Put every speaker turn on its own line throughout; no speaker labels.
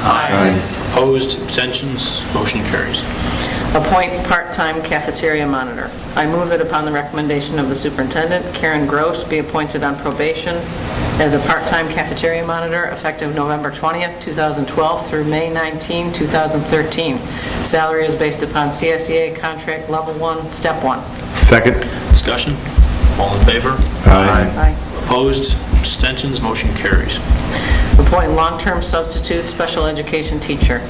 Aye.
Opposed, abstentions, motion carries.
Appoint part-time cafeteria monitor. I move that upon the recommendation of the superintendent, Karen Gross be appointed on probation as a part-time cafeteria monitor effective November 20th, 2012 through May 19, 2013. Salary is based upon CSEA contract level one, step one.
Second?
Discussion? All in favor?
Aye.
Aye.
Opposed, abstentions, motion carries.
Appoint long-term substitute special education teacher.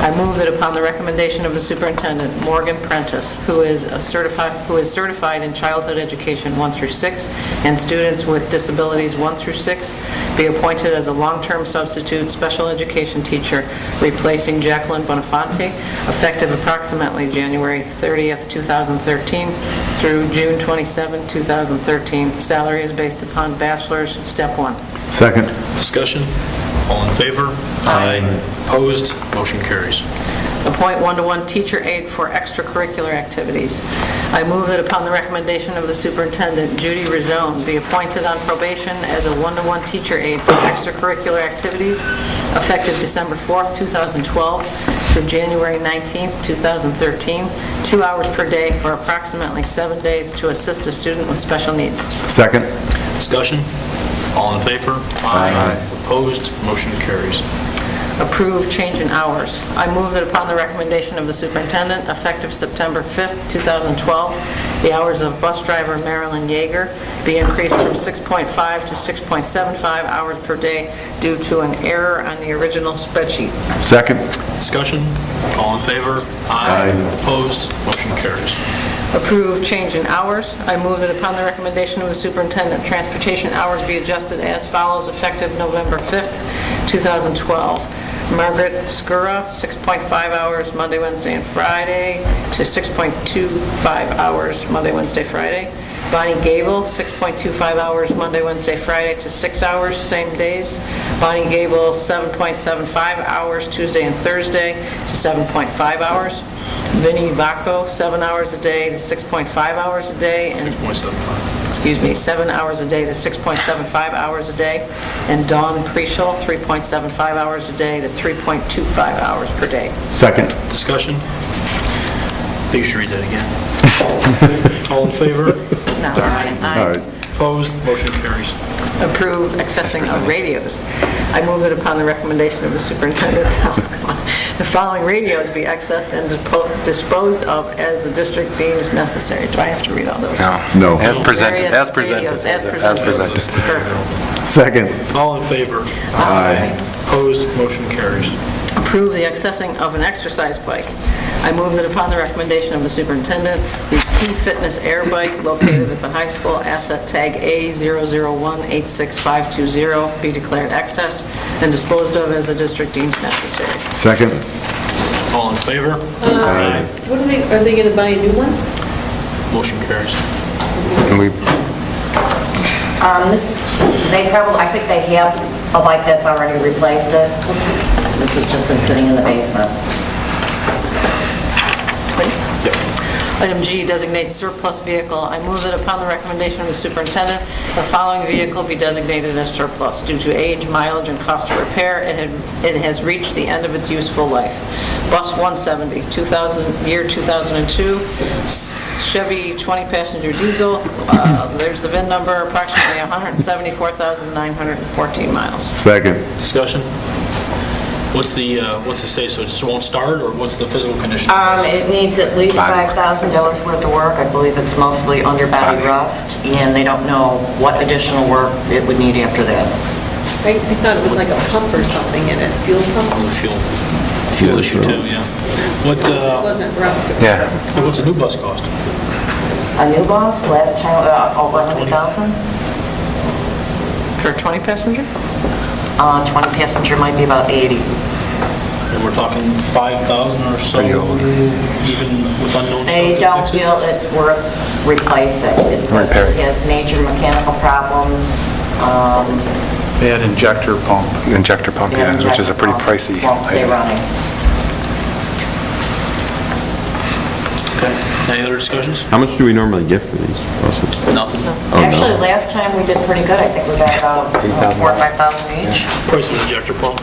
I move that upon the recommendation of the superintendent, Morgan Prentice, who is a certified, who is certified in childhood education 1 through 6, and students with disabilities 1 through 6, be appointed as a long-term substitute special education teacher, replacing Jacqueline Bonifanti, effective approximately January 30th, 2013, through June 27, 2013. Salary is based upon bachelor's, step one.
Second?
Discussion? All in favor?
Aye.
Opposed, motion carries.
appoint one-to-one teacher aide for extracurricular activities. I move that upon the recommendation of the superintendent, Judy Rizone be appointed on probation as a one-to-one teacher aide for extracurricular activities effective December 4th, 2012 through January 19th, 2013, two hours per day for approximately seven days to assist a student with special needs.
Second?
Discussion? All in favor?
Aye.
Opposed, motion carries.
approve change in hours. I move that upon the recommendation of the superintendent, effective September 5th, 2012, the hours of bus driver Marilyn Yeager be increased from 6.5 to 6.75 hours per day due to an error on the original spreadsheet.
Second?
Discussion? All in favor?
Aye.
Opposed, motion carries.
Approve change in hours. I move that upon the recommendation of the superintendent, transportation hours be adjusted as follows effective November 5th, 2012. Margaret Skura, 6.5 hours Monday, Wednesday, and Friday, to 6.25 hours Monday, Wednesday, Friday. Bonnie Gable, 6.25 hours Monday, Wednesday, Friday, to 6 hours, same days. Bonnie Gable, 7.75 hours Tuesday and Thursday, to 7.5 hours. Vinnie Vacco, seven hours a day to 6.5 hours a day, and,
6.75.
excuse me, seven hours a day to 6.75 hours a day, and Dawn Preschall, 3.75 hours a day to 3.25 hours per day.
Second?
Discussion? I think you should read that again. All in favor?
Now,
All
I- I-
right.
Opposed, motion carries.
approve accessing of radios. I move that upon the recommendation of the superintendent, the following radios be accessed and dispo- disposed of as the district deems necessary. Do I have to read all those?
No.
As presented,
Various
as presented.
radios, as
As
presented.
presented.
Perfect.
Second?
All in favor?
Aye.
Opposed, motion carries.
approve the accessing of an exercise bike. I move that upon the recommendation of the superintendent, the Key Fitness Air Bike located at the high school, asset tag A00186520, be declared excess and disposed of as the district deems necessary.
Second?
All in favor?
Aye.
What are they, are they going to buy a new one?
Motion carries.
And we,
Um, this, they probably, I think they have a light that's already replaced it. This has just been sitting in the basement.
Item G designates surplus vehicle. I move that upon the recommendation of the superintendent, the following vehicle be designated as surplus due to age, mileage, and cost of repair, and it- it has reached the end of its useful life. Bus 170, 2000, year 2002, s- Chevy 20-passenger diesel, uh, there's the VIN number, approximately 174,914 miles.
Second?
Discussion? What's the, uh, what's the state, so it just won't start, or what's the physical condition?
Um, it needs at least $5,000 worth of work. I believe it's mostly underbody rust, and they don't know what additional work it would need after that.
I I thought it was like a pump or something in it, fuel
On
pump.
the fuel, fuel issue too, yeah. What,
It
uh,
wasn't rust.
yeah,
what's a new bus cost?
A new boss, last time, uh, over 100,000?
For a 20-passenger?
Uh, 20 passenger might be about 80.
And we're talking 5,000 or so,
Pretty old.
even with unknown stuff?
They
to
don't
fix it?
feel it's worth replacing. It says
Repair it.
It has major mechanical problems, um,
Bad injector pump.
injector pump, yeah,
and
which is a pretty pricey.
Won't stay
item.
running.
Okay. Any other discussions?
How much do we normally get for these buses?
Nothing.
Oh, no.
Actually, last time we did pretty good. I think we got about uh, 4 or 5,000 each.
Price of the injector pump?